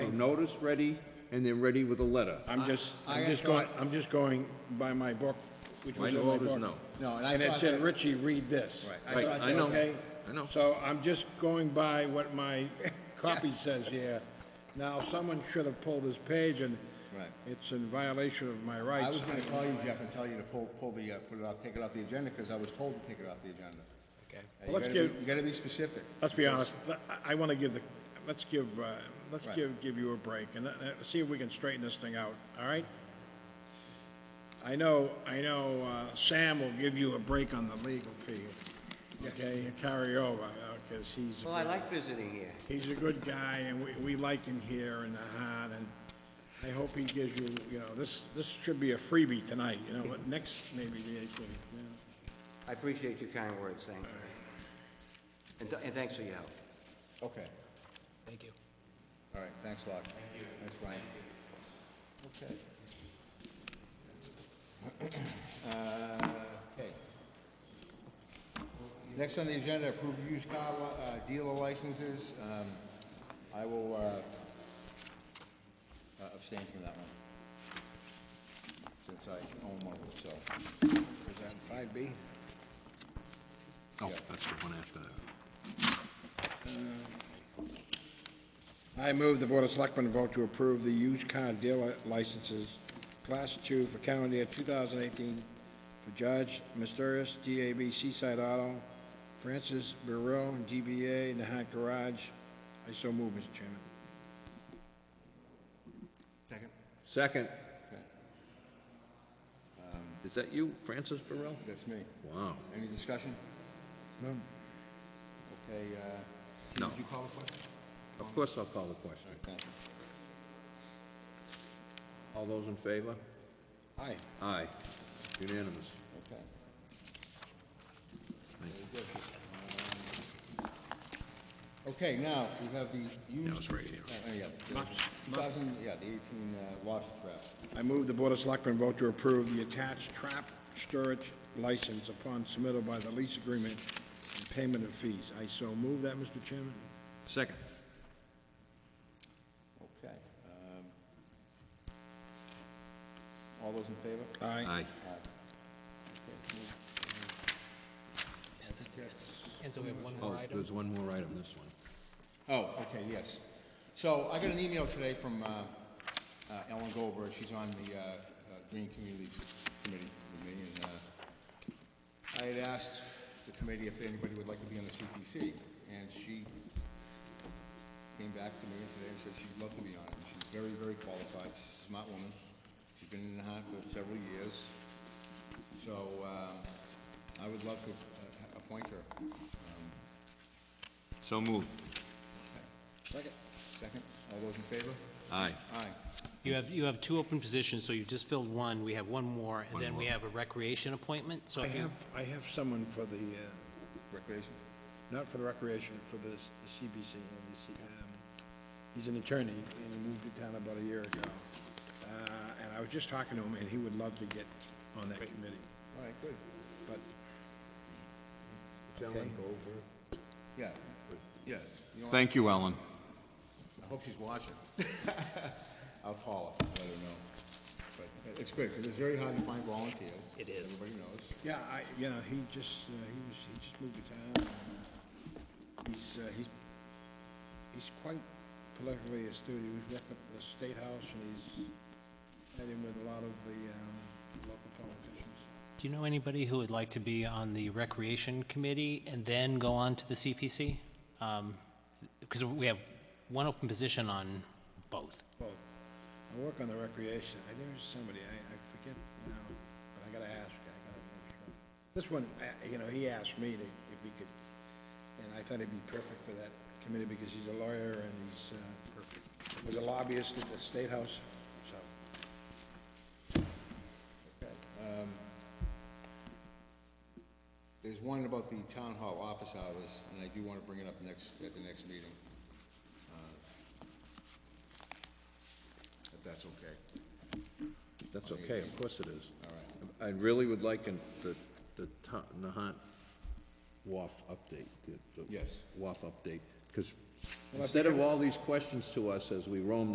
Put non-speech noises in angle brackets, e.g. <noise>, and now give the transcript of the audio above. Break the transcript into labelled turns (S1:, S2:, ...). S1: notice ready and they're ready with a letter.
S2: I'm just,
S3: I- I
S2: I'm
S3: got
S2: just going,
S3: caught-
S2: I'm just going by my book, which
S1: My
S2: was in my
S1: note is
S2: book.
S1: no.
S3: No, and I
S2: And it
S3: thought
S2: said,
S3: that-
S2: Richie, read this.
S3: Right.
S1: Right,
S2: thought,
S1: I know.
S2: okay?
S1: I know.
S2: So I'm just going by what
S3: <laughs>
S2: my copy says here. Now, someone should have pulled this page and
S3: Right.
S2: it's in violation of my
S3: I
S2: rights.
S3: was gonna call you, Jeff, and tell you to pull, pull the, uh, put it off, take it off the agenda, because I was told to take it off the agenda. Uh,
S4: Okay.
S3: you
S2: Well, let's
S3: gotta be-
S2: give-
S3: You gotta be specific.
S2: Let's be honest, let- I- I want to give the, let's give, uh, let's
S3: Right.
S2: give, give you a break and let- let's see if we can straighten this thing out, all right? I know, I know uh, Sam will give you a break on the legal fee, okay, and carry over, because he's,
S4: Well, I like visiting here.
S2: he's a good guy and we, we like him here in the heart and I hope he gives you, you know, this, this should be a freebie tonight, you know, but next, maybe the 18th, you know.
S4: I appreciate your kind words, thank you. And th- And thanks for your help.
S3: Okay,
S5: Thank you.
S3: all right, thanks a lot. Thank you. Thanks, Brian. Okay. <clears throat> Uh, Okay. Next on the agenda, approved used car uh, dealer licenses. Um, I will uh, uh, abstain from that one, since I own one of them, so.
S2: Is that 5B?
S1: Oh, that's the one after that.
S2: I move the Board of Selectmen vote to approve the used car dealer licenses, Class 2 for calendar year 2018 for Judge Mysterious, DAB Seaside Auto, Francis Burrell, DBA Nahat Garage. I so move, Mr. Chairman.
S3: Second?
S1: Second,
S3: Okay, Um,
S1: is that you, Francis Burrell?
S3: that's me.
S1: Wow.
S3: Any discussion?
S2: No?
S3: Okay, uh, Steve,
S1: No.
S3: did you call the question?
S1: Of course I'll call the question.
S3: All right, thank you.
S1: All those in favor?
S2: Aye.
S1: Aye. Unanimous.
S3: Okay.
S1: Thank
S3: Very good. Um, Okay, now, we have the used...
S1: it's right here.
S3: uh, yeah, the
S2: Lots,
S3: 2000, yeah, the 18 uh, lobster trap.
S2: I move the Board of Selectmen vote to approve the attached trap storage license upon submittal by the lease agreement and payment of fees. I so move that, Mr. Chairman.
S1: Second.
S3: Okay. um, All those in favor?
S1: Aye.
S3: Aye. Okay, it's moved.
S5: That's it. And so we have one
S1: Oh,
S5: more item.
S1: there's one more item, this one.
S3: Oh, okay, yes. So I got an email today from uh, uh, Ellen Goldberg, she's on the uh, uh, Green Communities Committee with me, and uh, I had asked the committee if anybody would like to be on the CPC, and she came back to me today and said she'd love to be on it. She's very, very qualified, she's a smart woman, she's been in the hunt for several years, so um, I would love to uh, appoint her. Um,
S1: So moved.
S3: Second. Second. All those in favor?
S1: Aye.
S3: Aye.
S5: You have, you have two open positions, so you've just filled one, we have one more, and then we have a recreation appointment, so
S2: I
S5: if you...
S2: have, I have someone for the, uh,
S3: Recreation?
S2: not for the recreation, for the, the CBC, you know, the C- um, he's an attorney, and he moved to town about a year ago. Uh, and I was just talking to him, and he would love to get on that committee,
S3: All right, good.
S2: but
S3: Ellen Yeah. Yeah. You know what?
S1: Thank you, Ellen.
S3: I hope she's watching. <laughs> I'll call her, let her know. But it's good, because it's very hard to find volunteers.
S5: It is.
S3: Everybody knows.
S2: Yeah, I, you know, he just, uh, he was, he just moved to town. and He's, uh, he's, he's quite politically astute. He was rep at the State House and he's met in with a lot of the, um, local politicians.
S5: Do you know anybody who would like to be on the Recreation Committee and then go on to the CPC? Because Um, we have one open position on both.
S2: Both. I work on the recreation. I, there's somebody, I, I forget now, but I gotta ask, I gotta make sure. This one, I- you know, he asked me to, if he could, and I thought he'd be perfect for that committee because he's a lawyer and he's, uh, perfect. was a lobbyist at the State House, so.
S3: Um, There's one about the town hall office hours, and I do want to bring it up next, at the next meeting. Uh, If that's okay.
S1: That's okay, of course it is.
S3: All right.
S1: I really would like an- the, the Ta- Nahant WAF update. the- the
S3: Yes.
S1: WAF update, because instead of all these questions to us as we roam